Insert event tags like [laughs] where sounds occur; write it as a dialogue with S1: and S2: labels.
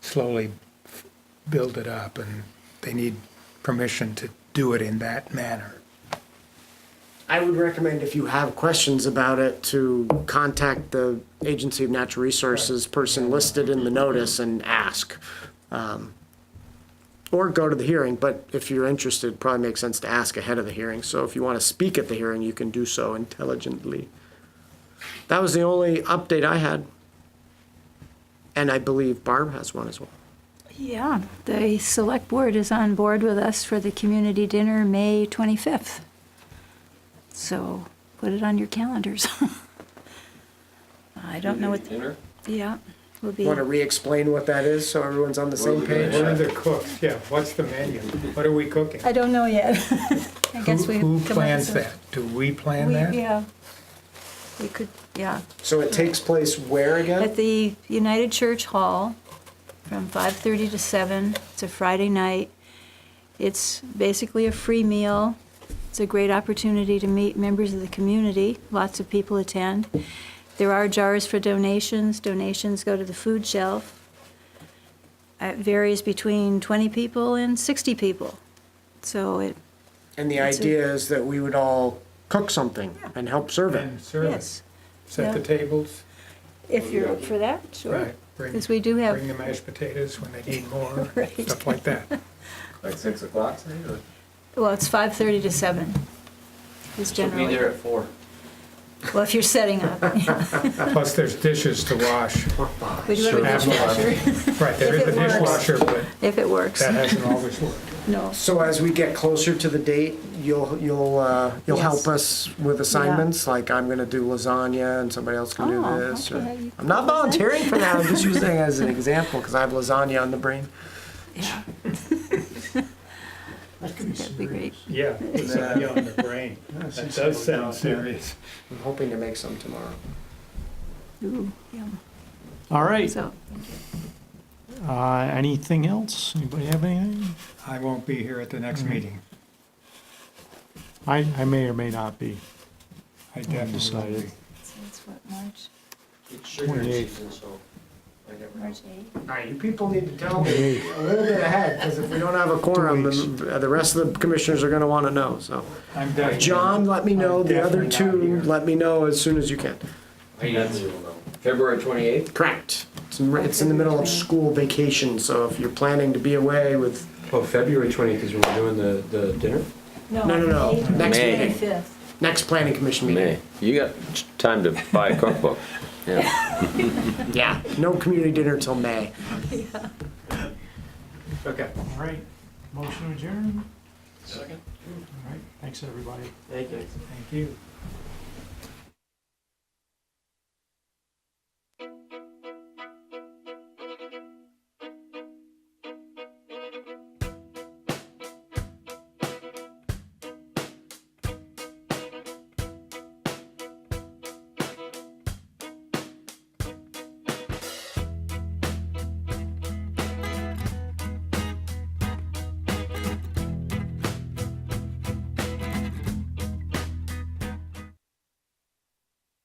S1: slowly f- build it up, and they need permission to do it in that manner.
S2: I would recommend if you have questions about it to contact the Agency of Natural Resources person listed in the notice and ask. Um, Or go to the hearing, but if you're interested, probably makes sense to ask ahead of the hearing. So if you want to speak at the hearing, you can do so intelligently. That was the only update I had. And I believe Barb has one as well.
S3: Yeah, the select board is on board with us for the community dinner, May 25th. So put it on your calendars. [laughs] I don't know what,
S4: Dinner?
S3: yeah, we'll be,
S2: Want to re-explain what that is so everyone's on the same page?
S1: What are the cooks, yeah, what's the menu? What are we cooking?
S3: I don't know yet. [laughs] I guess we.
S1: Who
S3: come up with
S1: plans
S3: some-
S1: that? Do we plan
S3: We-
S1: that?
S3: Yeah. We could, yeah,
S2: So it takes place where again?
S3: at the United Church Hall from 5:30 to 7. It's a Friday night. It's basically a free meal. It's a great opportunity to meet members of the community. Lots of people attend. There are jars for donations. Donations go to the food shelf. It varies between 20 people and 60 people. So it,
S2: And the
S3: It's a-
S2: idea is that we would all cook something and help serve it.
S3: yes,
S1: Set the
S3: Yeah.
S1: tables,
S3: if you're up for that, sure.
S1: right, bring,
S3: Because we do have
S1: bring the mashed potatoes when they need more,
S3: [laughs] Right.
S1: stuff like that.
S3: [laughs]
S4: Like six o'clock, say, or?
S3: Well, it's five thirty to seven. Is
S4: We'll be there
S3: generally,
S4: at four.
S3: well, if you're setting up. [laughs]
S1: Plus, there's dishes to wash.
S3: We do have a
S1: Sure.
S3: dishwasher,
S1: Right, there is
S3: If
S1: a
S3: it works.
S1: dishwasher, but
S3: if it works,
S1: that hasn't always worked.
S3: [laughs] no.
S2: So as we get closer to the date, you'll, you'll, uh, you'll
S3: Yes.
S2: help us with assignments, like I'm gonna do lasagna and somebody else can do
S3: Oh,
S2: this. or-
S3: okay, you
S2: I'm not volunteering for that,
S5: [laughs]
S2: I'm just using it as an example, because I have lasagna on the brain.
S3: Yeah. That'd be great.
S5: Yeah, it's
S2: Yeah.
S5: on the brain. That does sound serious.
S2: I'm hoping to make some tomorrow.
S3: Ooh, yum.
S6: All right,
S3: So,
S6: uh, anything else? Anybody have anything?
S5: I won't be here at the next
S1: Mm-hmm.
S5: meeting.
S6: I, I may or may not be.
S5: I definitely won't
S6: Decided.
S5: be.
S3: so it's what, March,
S4: It's sugar
S6: 28th.
S4: season, so I never know.
S3: March eighth?
S2: All right, you people need to tell me [laughs]
S6: Hey,
S2: a little bit ahead, because if we don't have a quorum,
S6: Two
S2: then uh, the rest of the commissioners are gonna wanna know, so.
S5: I'm definitely.
S2: John, let me know,
S5: I'm
S2: the other
S5: definitely not
S2: two,
S5: here.
S2: let me know as soon as you can.
S4: I got zero now. February twenty-eighth?
S2: Correct. It's in, it's in the middle of school vacation, so if you're planning to be away with,
S4: Oh, February twenty-eighth is when we're doing the, the dinner?
S2: No, no, no.
S3: May
S2: Next
S7: May.
S2: meeting.
S3: Fifth.
S2: next planning commission meeting.
S7: May. You got time to buy a cookbook. Yeah.
S2: Yeah, no community dinner till May. Okay.
S6: All right, motion adjourned.
S4: Second.
S6: All right, thanks, everybody.
S4: Thank you.
S6: Thank you.